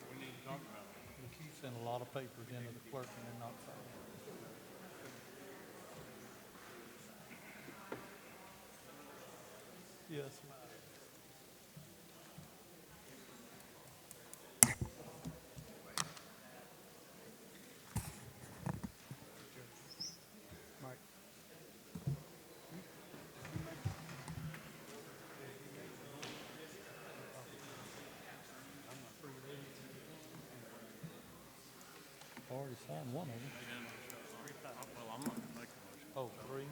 We keep sending a lot of papers into the clerk and they're not filed. Yes, ma'am. Already signed one of them. Well, I'm not making Oh, three?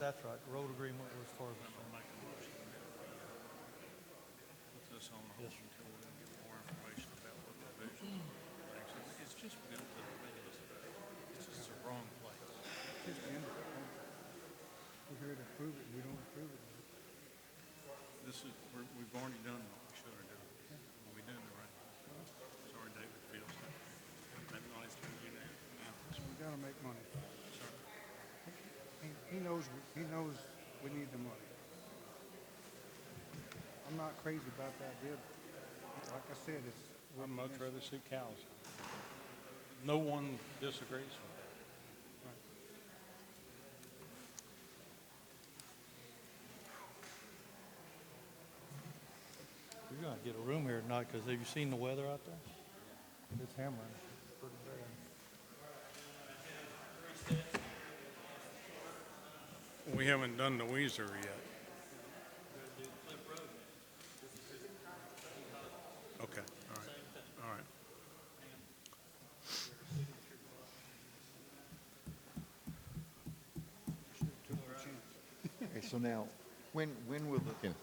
That's right, road agreement was for the. Yes, sir. Just end it. We're here to approve it, we don't approve it. This is, we're, we've already done what we should have done. We did it right. Sorry, David Fields. That noise turned you down. So we gotta make money. He, he knows, we- he knows we need the money. I'm not crazy about that deal. Like I said, it's. I'd much rather see cows. No one disagrees with that. We're gonna get a room here tonight, because have you seen the weather out there? It's hammering. Pretty bad. We haven't done the Weezer yet. Okay, all right, all right. Okay, so now, when, when will the, Ken,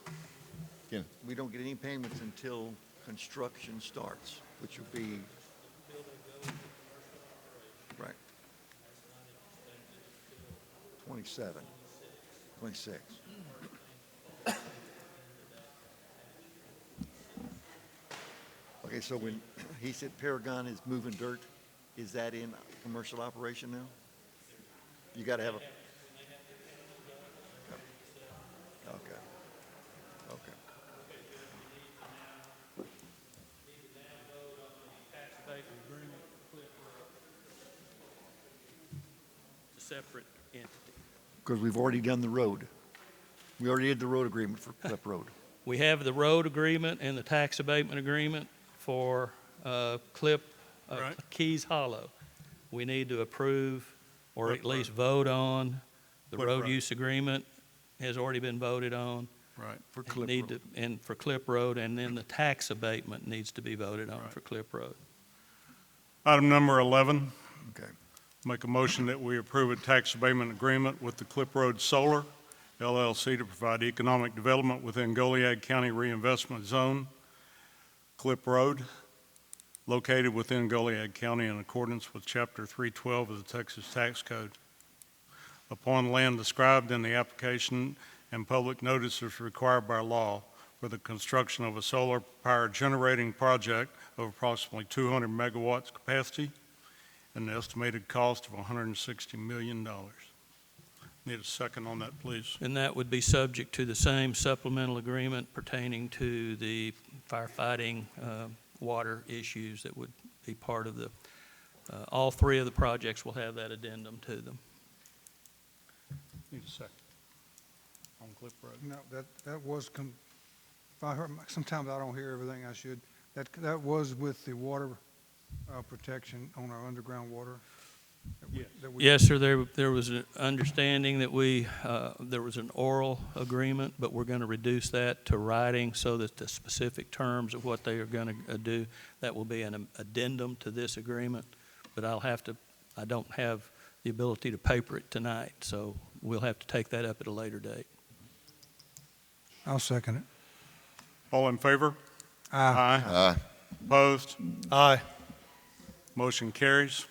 Ken, we don't get any payments until construction starts, which will be. Right. Twenty-seven, twenty-six. Okay, so when, he said Paragon is moving dirt, is that in commercial operation now? You gotta have a. Okay. Okay. state agreement It's a separate entity. Because we've already done the road. We already did the road agreement for Cliff Road. We have the road agreement and the tax abatement agreement for uh, Clip, uh, Right. Keys Hollow. We need to approve or Clip at least vote on. The Clip road Road. use agreement has already been voted on. Right. For and need to- And for Clip Road, and then the tax abatement needs to be voted on Right. for Clip Road. Item number 11, Okay. Make a motion that we approve a tax abatement agreement with the Clip Road Solar LLC to provide economic development within Goliad County Reinvestment Zone, Clip Road, located within Goliad County in accordance with Chapter 312 of the Texas Tax Code. Upon land described in the application and public notice is required by law for the construction of a solar power generating project of approximately 200 megawatts capacity an estimated cost of $160 million. Need a second on that, please. And that would be subject to the same supplemental agreement pertaining to the firefighting, uh, water issues that would be part of the, uh, all three of the projects will have that addendum to them. Need a second. On Cliff Road. No, that, that was, com- if I heard, sometimes I don't hear everything I should. That, that was with the water, uh, protection on our underground water. that we- Yes. that we- Yes, sir, there, there was an understanding that we, uh, there was an oral agreement, but we're gonna reduce that to writing so that the specific terms of what they are gonna uh, do, that will be an addendum to this agreement, but I'll have to, I don't have the ability to paper it tonight, so we'll have to take that up at a later date. I'll second it. All in favor? Aye. Aye. Opposed? Aye. Motion carries.